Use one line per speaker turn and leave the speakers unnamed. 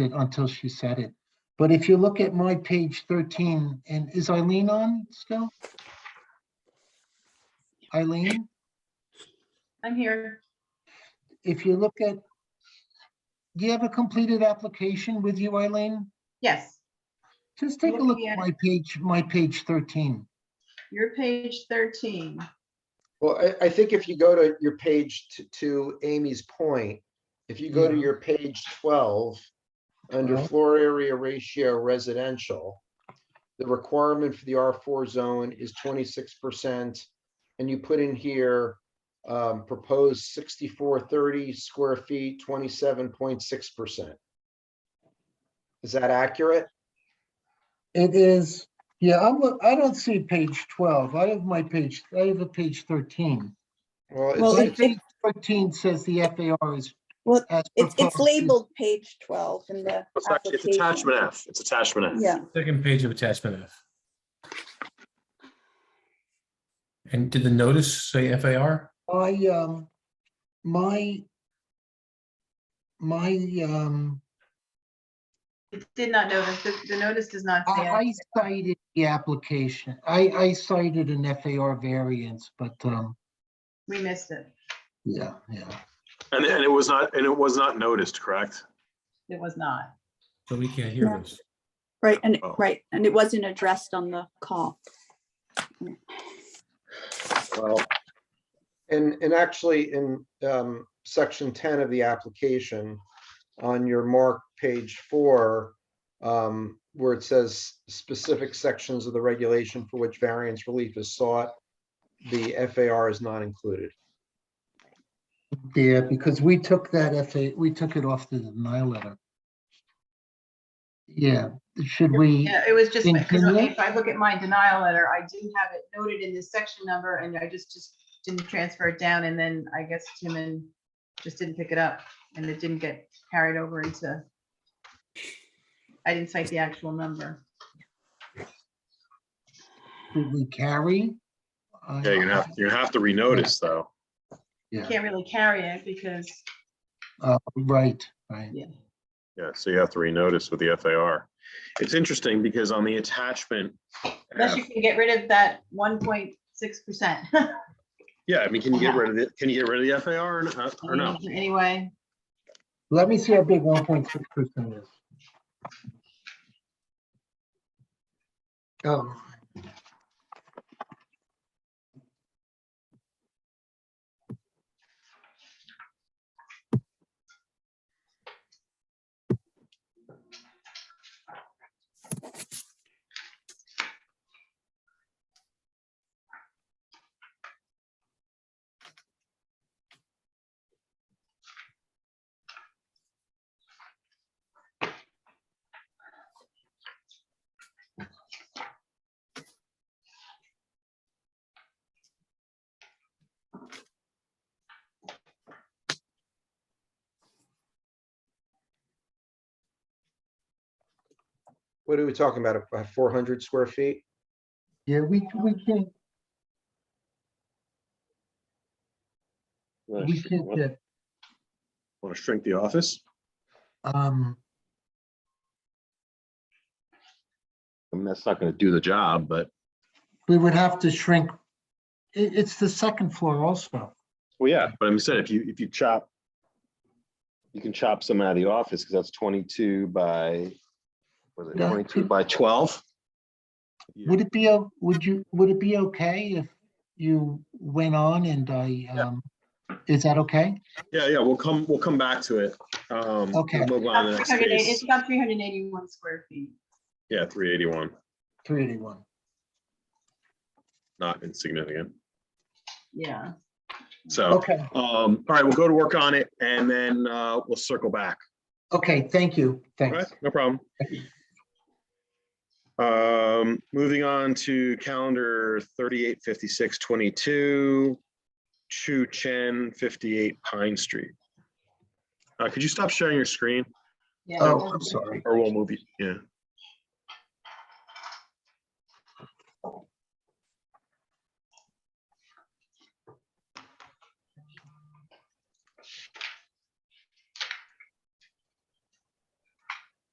it until she said it. But if you look at my page 13, and is Eileen on still? Eileen,
I'm here.
if you look at, do you have a completed application with you, Eileen?
Yes,
Just take a look
Looking
at
at
my page, my page 13.
your page 13.
Well, I, I think if you go to your page, t- to Amy's point, if you go to
Yeah.
your page 12, under
Well.
floor area ratio residential, the requirement for the R4 zone is 26%. And you put in here, um, proposed 6430 square feet, 27.6%. Is that accurate?
It is, yeah, I'm, look- I don't see page 12. I have my page, I have a page 13.
Well,
Well,
My
it's-
it-
it's,
page 13 says the FAR is.
Well,
as
It's, it's
proposed.
labeled page 12 in the
Oh, It's actually- it's
application.
attachment F, it's attachment F.
Yeah,
Second page of attachment F. And did the notice say FAR?
I, um, my, my, um,
It did not notice, the, the notice does not
I
say.
I cited the application. I, I cited an FAR variance, but, um,
We missed it.
yeah, yeah.
And, and it was not, and it was not noticed, correct?
It was not.
So we can't hear this.
right, and,
Oh.
right, and it wasn't addressed on the call.
well, and, and actually in, um, section ten of the application, on your mark page four, um, where it says specific sections of the regulation for which variance relief is sought, the FAR is not included.
Yeah, because we took that FA, we took it off the denial letter. Yeah, should we?
Yeah, it was just,
In
because
Kenya?
if I look at my denial letter, I do have it noted in this section number and I just, just didn't transfer it down and then I guess Tim and just didn't pick it up and it didn't get carried over into. I didn't cite the actual number.
Should we carry? I-
Yeah, you're gonna have, you're gonna have to renotice though.
Yeah,
Can't really carry it because,
uh, right, right.
yeah.
Yeah, so you have to renotice with the FAR. It's interesting because on the attachment,
Unless you
F-
can get rid of that one point six percent.
yeah, I mean, can you get rid of it? Can you get rid of the FAR or not- or no?
Anyway,
Let me see how big one point six percent is. Um,
What are we talking about? Four hundred square feet?
yeah, we, we can,
Oh,
we can get,
Want to shrink the office?
um,
I mean, that's not gonna do the job, but.
we would have to shrink. It, it's the second floor also.
Well, yeah, but I'm saying if you, if you chop, you can chop some out of the office because that's twenty-two by, was it
Yeah.
twenty-two by twelve?
Would it be, o- would you, would it be okay if you went on and I, um, is that okay?
Yeah, yeah, we'll come, we'll come back to it. Um, we'll
Okay.
Move on to the
about
next
380 it's
case.
about three hundred and eighty-one square feet.
Yeah, three eighty-one,
Three eighty-one.
not insignificant.
Yeah,
So,
Okay,
um, all right, we'll go to work on it and then, uh, we'll circle back.
okay, thank you,
All right,
thanks.
no problem. Um, moving on to calendar thirty-eight fifty-six twenty-two, Chu Chen, fifty-eight Pine Street. Uh, could you stop sharing your screen
yeah.
Oh, I'm sorry.
or we'll move you, yeah,